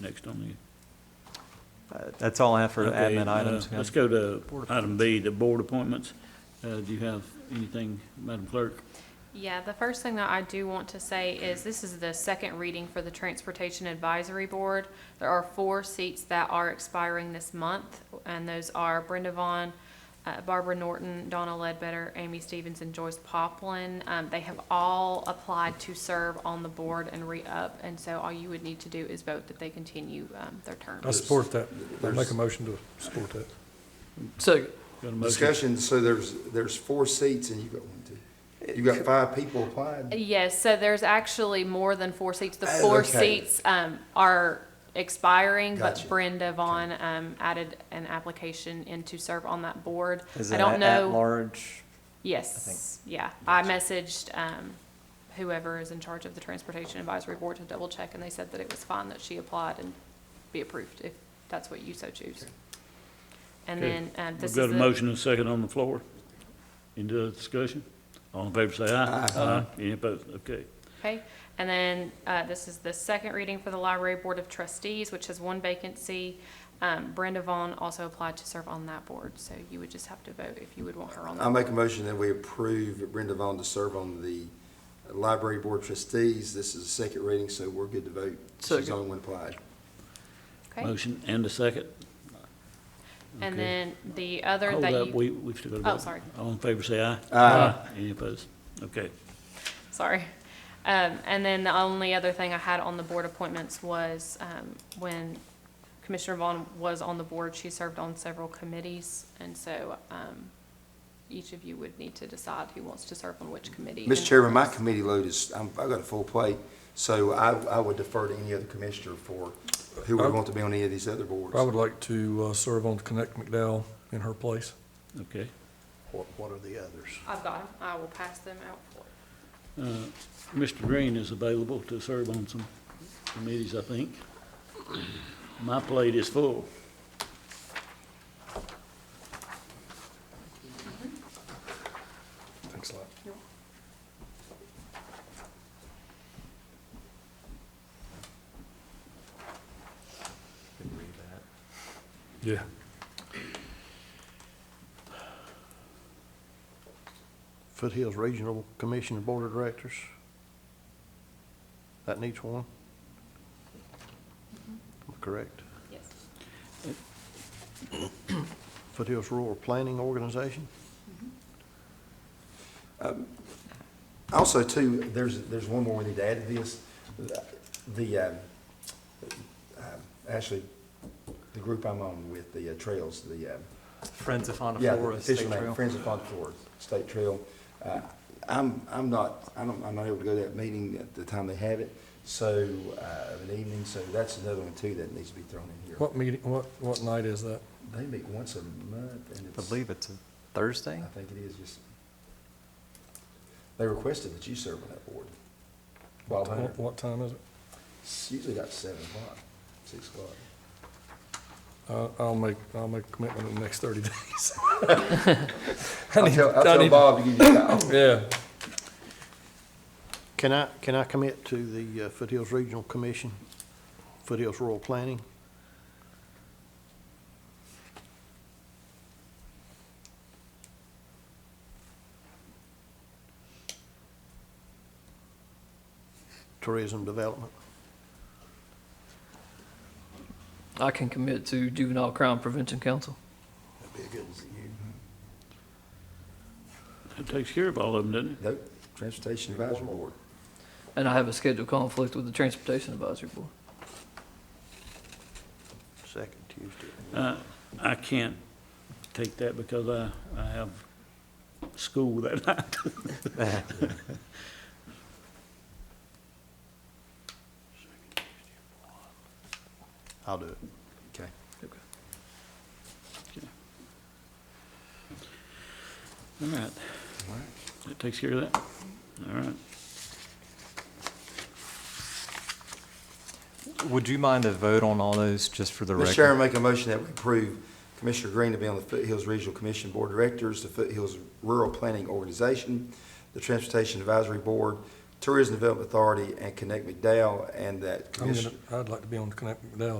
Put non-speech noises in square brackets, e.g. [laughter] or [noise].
next on the. Uh, That's all I have for Okay, admin uh, items. Let's go to item B, the board appointments. Uh, do you have anything, Madam Clerk? Yeah, the first thing that I do want to say is this is the second reading for the Transportation Advisory Board. There are four seats that are expiring this month, and those are Brenda Vaughn, uh, Barbara Norton, Donna Ledbetter, Amy Stevens, and Joyce Poplin. Um, They have all applied to serve on the board and re-up, and so all you would need to do is vote that they continue um, their term. I support that. I make a motion to support that. Second. Got a motion? Discussion, so there's, there's four seats and you got one, two. You got five people applying. Yes, so there's actually more than four seats. The four okay. seats um, are expiring, but Gotcha. Brenda Vaughn um, added an application in to serve on that board. Is I it don't at- know. At-large? Yes, yeah. I messaged um, whoever is in charge of the Transportation Advisory Board to double check, and they said that it was fine that she applied and be approved, if that's what you so choose. And Okay. then um, this We've is got a the- motion and a second on the floor. Any other discussion? All in favor, say aye. Aye. Any opposed? Okay. Okay, and then, uh, this is the second reading for the Library Board of Trustees, which has one vacancy. Um, Brenda Vaughn also applied to serve on that board, so you would just have to vote if you would want her on I that. make a motion that we approve Brenda Vaughn to serve on the Library Board of Trustees. This is the second reading, so we're good to vote. She's the Second. only one applied. Okay, Motion and a second. okay. and then the other Hold that up, you, we, we've still got a Oh, vote. sorry. All in favor, say aye. Aye. Any opposed? Okay. sorry. Um, and then the only other thing I had on the board appointments was, um, when Commissioner Vaughn was on the board, she served on several committees, and so, um, each of you would need to decide who wants to serve on which committee. Mr. and- Chairman, my committee load is, I'm, I've got a full plate, so I, I would defer to any other commissioner for who would want to be on any of these other boards. I would like to uh, serve on Connect McDowell in her place. Okay. What, what are the others? I've got them. I will pass them out for you. Uh, Mr. Green is available to serve on some committees, I think. My plate is full. Thanks a lot. Yeah. Foothills Regional Commission and Board of Directors. That needs one. Am I Correct. Yes. Foothills Rural Planning Organization. Also, too, there's, there's one more we need to add to this. The, uh, uh, actually, the group I'm on with, the uh, Trails, the, uh, Friends of Fauna yeah, the Flora State official name, Trail. Friends of Fond du Fjord State Trail. Uh, I'm, I'm not, I don't, I'm not able to go to that meeting at the time they have it, so, uh, of an evening, so that's another one, too, that needs to be thrown in here. What meeting, what, what night is that? They meet once a month, and I it's, believe it's a Thursday? I think it is just, they requested that you serve on that board. Bob Hunter. What- What time is it? It's usually about seven o'clock, six o'clock. Uh, I'll make, I'll make a commitment in the next thirty [laughs] days. I I'll need- tell, I'll I tell need- Bob to give you a call. Yeah. Can I, can I commit to the uh, Foothills Regional Commission, Foothills Rural Planning? Tourism Development? I can commit to Juvenile Crime Prevention Council. That'd be a good one for you. That takes care of all of them, doesn't it? Nope, Transportation Advisory Board. And I have a scheduled conflict with the Transportation Advisory Board. Second Tuesday. Uh, I can't take that because I, I have school that [laughs] night. I'll do it. Okay. All right. That takes care of that. All right. Would you mind a vote on all those, just for the record? Mr. Chairman, make a motion that we approve Commissioner Green to be on the Foothills Regional Commission Board of Directors, the Foothills Rural Planning Organization, the Transportation Advisory Board, Tourism Development Authority, and Connect McDowell, and that I'm Commissioner. gonna, I'd like to be on the Connect McDowell